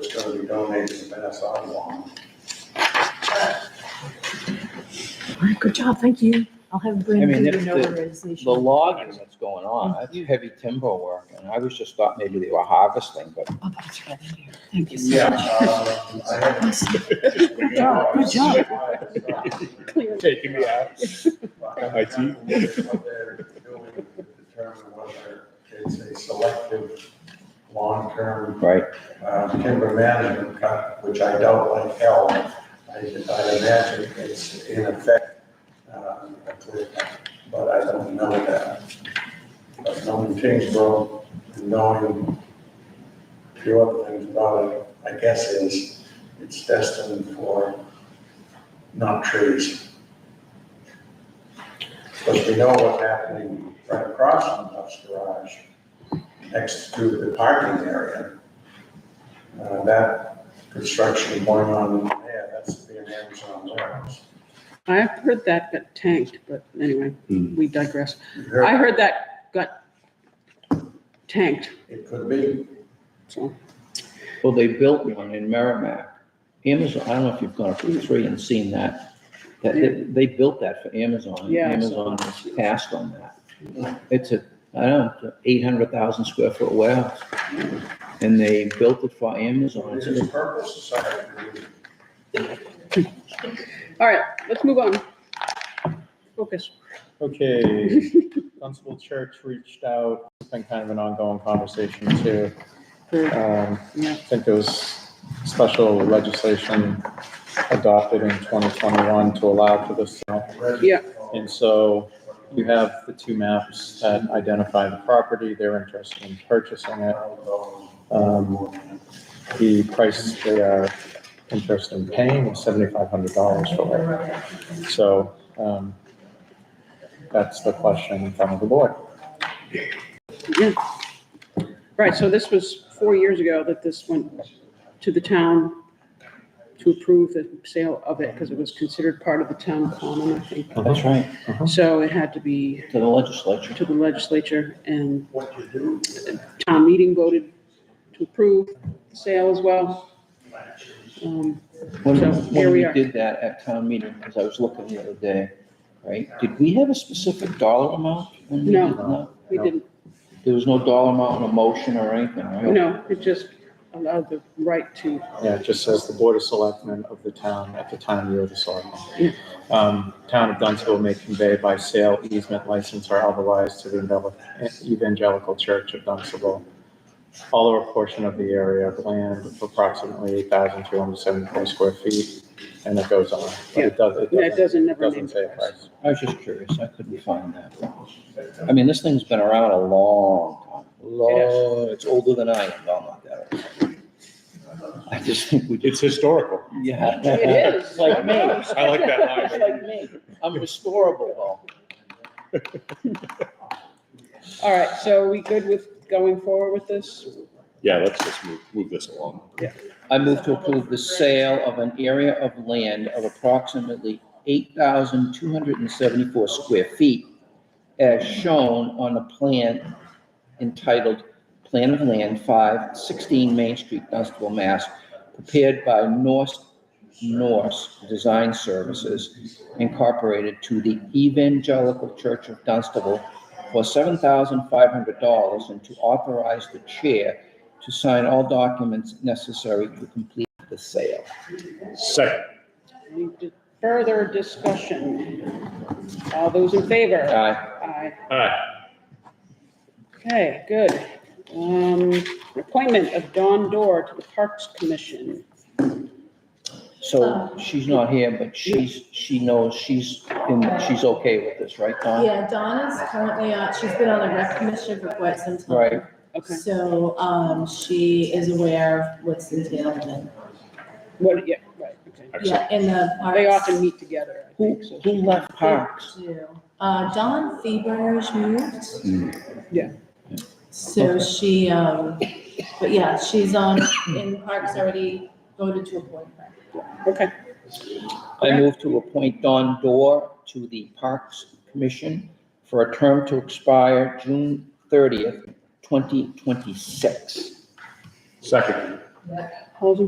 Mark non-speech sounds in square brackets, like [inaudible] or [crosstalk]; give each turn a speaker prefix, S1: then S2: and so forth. S1: because we donated some past sidewalk.
S2: Good job, thank you. I'll have
S3: I
S2: Brandon
S3: mean,
S2: do the
S3: if the- The
S2: notarization.
S3: logging that's going on, that's
S4: Mm-hmm.
S3: heavy timber work, and I was just thought maybe they were harvesting, but
S2: Oh, that's right in here. Thank you
S1: Yeah.
S2: so much.
S1: uh, I had-
S2: Good job, good job. Clear.
S5: Taking me out. Got my teeth.
S1: Determine whether it's a selective, long-term
S3: Right,
S1: uh, timber management cut, which I doubt like hell. I, I imagine it's in effect, uh, a clear cut, but I don't know that. But knowing Kingsborough, and knowing a few other things about it, I guess is, it's destined for not trees. Because we know what's happening right across from Duff's Garage, next to the parking area. Uh, that construction going on there, that's being Amazon warehouse.
S4: I've heard that got tanked, but anyway,
S5: Hmm.
S4: we digress. I heard that got tanked,
S1: It could be,
S4: so.
S3: well, they built one in Merrimack. Amazon, I don't know if you've gone through three and seen that, that, they- they built that for Amazon, and
S4: Yeah, I saw
S3: Amazon has passed on that. It's a, I don't know, eight hundred thousand square foot warehouse, and they built it for Amazon,
S1: it
S3: It's-
S5: Uh-huh.
S1: is purpose society.
S4: All right, let's move on. Focus.
S5: Okay, Dunstable Church reached out, it's been kind of an ongoing conversation too.
S4: Yeah,
S5: Um, I think there was special legislation adopted in 2021 to allow for this. sale.
S4: Yeah.
S5: And so you have the two maps that identify the property, they're interested in purchasing it. Um, The price they are interested in paying is $7,500 for it. So um, that's the question in front of the board.
S4: yeah. Right, so this was four years ago that this went to the town to approve the sale of it because it was considered part of the town common, I think.
S3: Oh, that's right,
S4: So it had to be
S3: to the legislature.
S4: to the legislature and
S1: What you do,
S4: town meeting voted to approve the sale as well. Um,
S3: When,
S4: So here
S3: when
S4: we
S3: we
S4: are.
S3: did that at town meeting, because I was looking the other day, right, did we have a specific dollar amount? when we
S4: No.
S3: did that?
S4: We didn't,
S3: There was no dollar amount in a motion or anything, right?
S4: no, it just allowed the right to,
S5: Yeah, it just says the Board of Selectmen of the town at the time you are the
S4: Yeah.
S5: selectman. Um, Town of Dunstable may convey by sale, easement, license, or otherwise to the Evangel- Evangelical Church of Dunstable, all or a portion of the area of land of approximately 8,374 square feet, and it goes on. But it does- it
S4: yeah, it
S5: doesn't,
S4: doesn't
S5: it
S4: never
S5: doesn't
S4: name.
S5: say a price.
S3: I was just curious, I couldn't find that. I mean, this thing's been around a long time, long, it's older than I am, no, I'm not that old. I just think we just,
S5: It's historical.
S3: yeah.
S4: It is.
S3: Like me.
S5: I [laughs] like that line.
S3: It's Like me, I'm restorable, though.
S4: All right, so we good with going forward with this?
S6: Yeah, let's just move, move this along.
S3: I move to approve the sale of an area of land of approximately eight thousand two hundred and seventy-four square feet as shown on a plan entitled Plan of Land Five Sixteen Main Street, Dunstable, Mass, prepared by Norse Norse Design Services Incorporated to the Evangelical Church of Dunstable for seven thousand five hundred dollars and to authorize the chair to sign all documents necessary to complete the sale.
S6: Second,
S4: Any di- Further discussion? All those in favor?
S3: Aye.
S4: Aye.
S6: aye,
S4: Okay, good. Um, appointment of Dawn Dorr to the Parks Commission.
S3: So she's not here, but she's, she knows she's, in- she's okay with this, right, Don?
S7: Yeah, Dawn is currently on, she's been on the rec commission for quite some time.
S3: Right.
S4: Okay,
S7: So, um, she is aware of what's entailed and,
S4: what, yeah, right, okay.
S7: yeah, in the
S4: They
S7: parks.
S4: often meet together, I
S3: Who,
S4: think, so.
S3: who left Parks?
S7: too. Uh, Dawn Fevers moved.
S3: Mm.
S4: Yeah.
S7: So she, um, but yeah, she's on, in parks already voted to appoint her.
S4: Okay,
S3: I move to appoint Don Dorr to the Parks Commission for a term to expire June thirtieth, twenty twenty-six.
S6: second.
S4: all those in